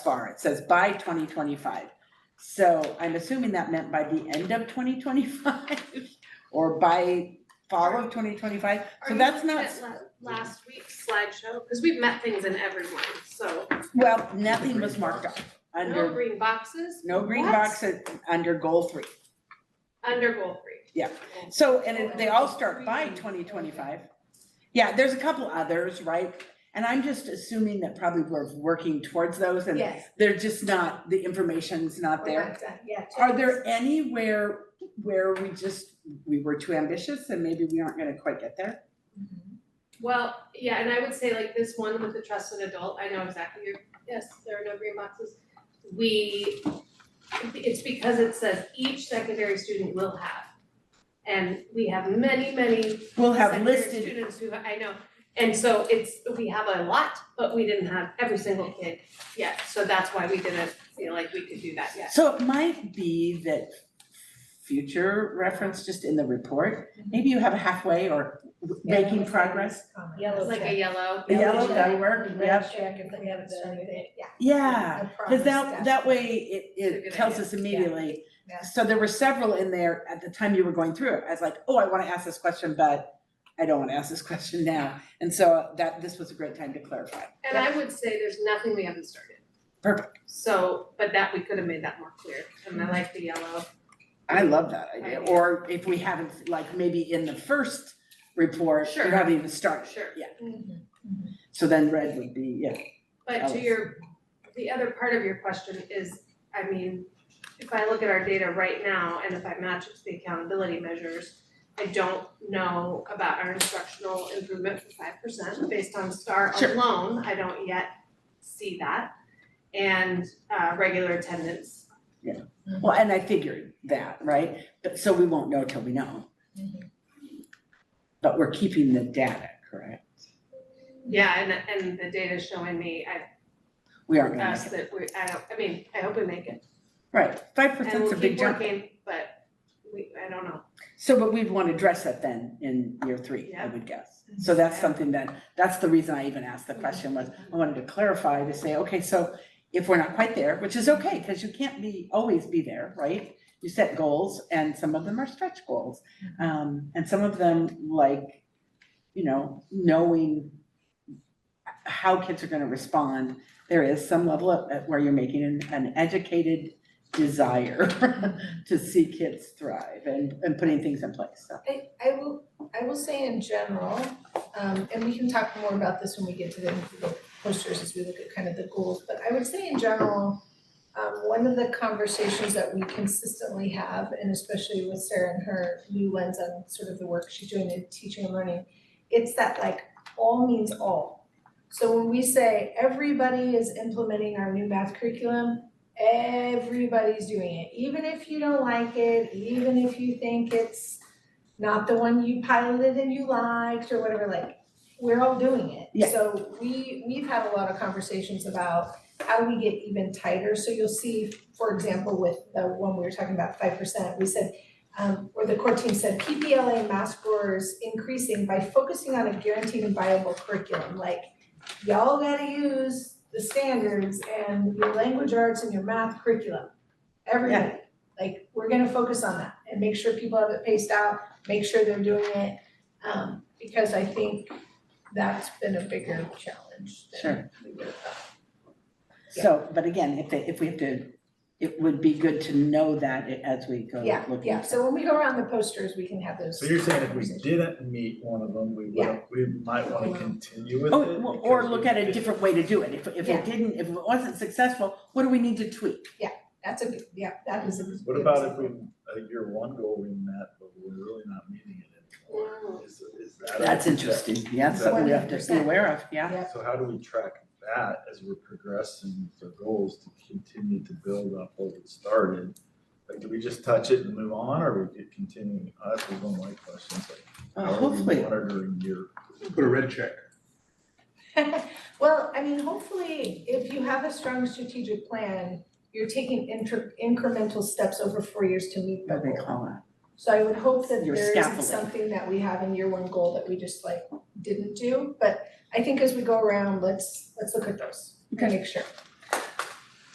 far. It says by twenty twenty-five. So I'm assuming that meant by the end of twenty twenty-five or by fall of twenty twenty-five. So Are you that's looking not, at la- Last week's slideshow, because we've met things in every one, so well, nothing was marked up no under, green boxes, no green What? box uh, under goal three. under goal three. Yeah. So, and it- they all start by twenty twenty-five. Yeah, there's a couple others, right? And I'm just assuming that probably we're working towards those and Yes. they're just not, the information's not we're there. not done. Yeah. Are there anywhere where we just, we were too ambitious and maybe we aren't gonna quite get there? Well, yeah, and I would say like this one with the trusted adult, I know exactly your, yes, there are no green boxes. We, it's because it says each secondary student will have. And we have many, many We'll have secondary listed, students who, I know, and so it's, we have a lot, but we didn't have every single kid yet, so that's why we didn't feel like we could do that yet. so it might be that future reference just in the report, Mm-hmm. maybe you have a halfway or making progress. Yellow Like a check. yellow. The yellow, check. that'll work, Red yeah. check if we haven't started it, yeah. Yeah. The Cause promise that, stuff. that way it, It's a it good tells idea. us immediately. Yeah. So there were several in there at the time you were going through it. I was like, oh, I wanna ask this question, but I don't wanna ask this question now. And so that, this was a great time to clarify. And I would say there's nothing we haven't started. Perfect. So, but that, we could have made that more clear, and I like the yellow. I love that idea. Idea. Or if we haven't, like maybe in the first report, we Sure. haven't even started. Sure. Yeah, Mhm. so then red would be, yeah. But to Alice. your, the other part of your question is, I mean, if I look at our data right now and if I match it to the accountability measures, I don't know about our instructional improvement for five percent based on STAR Sure. alone, I don't yet see that. And uh regular attendance, Well, and I figured that, right? But so we won't know till we know. mm-hmm. But we're keeping the data, correct? yeah, and and the data showing me, I We aren't gonna, us make it. that we, I don't, I mean, I hope we make it. right, five And percent's a we'll big keep jump. working, but we, I don't know, So, but we'd want to address that then in year three, I Yeah. would guess. So that's Yeah. Mm-hmm. something that, that's the reason I even asked the question was, I wanted to clarify to say, okay, so if we're not quite there, which is okay, because you can't be, always be there, right? You set goals and some of them are stretch goals. Um, and some of them like, you know, knowing how kids are gonna respond, there is some level of, at where you're making an, an educated desire to see kids thrive and, and putting things in place, so. I, I will, I will say in general, um, and we can talk more about this when we get to the individual posters as we look at kind of the goals, but I would say in general, um, one of the conversations that we consistently have, and especially with Sarah and her new lens on sort of the work she's doing in teaching and learning, it's that like all means all. So when we say everybody is implementing our new math curriculum, everybody's doing it, even if you don't like it, even if you think it's not the one you piloted and you liked or whatever, like, we're all doing it. Yeah. So we, we've had a lot of conversations about how do we get even tighter, so you'll see, for example, with the one we were talking about, five percent, we said, um, or the core team said, PPLA math scores increasing by focusing on a guaranteed and viable curriculum, like, y'all gotta use the standards and your language arts and your math curriculum. Everybody, like, we're gonna focus on that and make sure people have it paced out, make sure they're doing it. Um, because I think that's been a bigger challenge than we would have thought. So, but again, if they, if we have to, it would be good to know that i- as we go Yeah, looking. yeah, so when we go around the posters, we can have those. So you're saying if we conversations. didn't meet one of them, we Yeah. would, we might wanna continue with it? Oh, w- or because look we- at a different way to do it. If, if Yeah. it didn't, if it wasn't successful, what do we need to tweak? That's a, good- yeah, that is a. What about if we, uh, year one goal we met, but we're really not meeting it anymore? Is, is that? a- That's interesting. Yeah, that's something we have to be 100%. aware of, yeah. So how do we track that as we're progressing with our goals to continue to build up what we started? Like, do we just touch it and move on, or we could continue? Uh, That's one of my questions, like, Uh, how are we Hopefully, monitoring year? Put a red check. Well, I mean, hopefully, if you have a strong strategic plan, you're taking inter- incremental steps over four years to meet the what they goal. call it. So I would hope that Your there isn't scaffolding. something that we have in year one goal that we just like didn't do, but I think as we go around, let's, let's look at those, and Okay. make sure.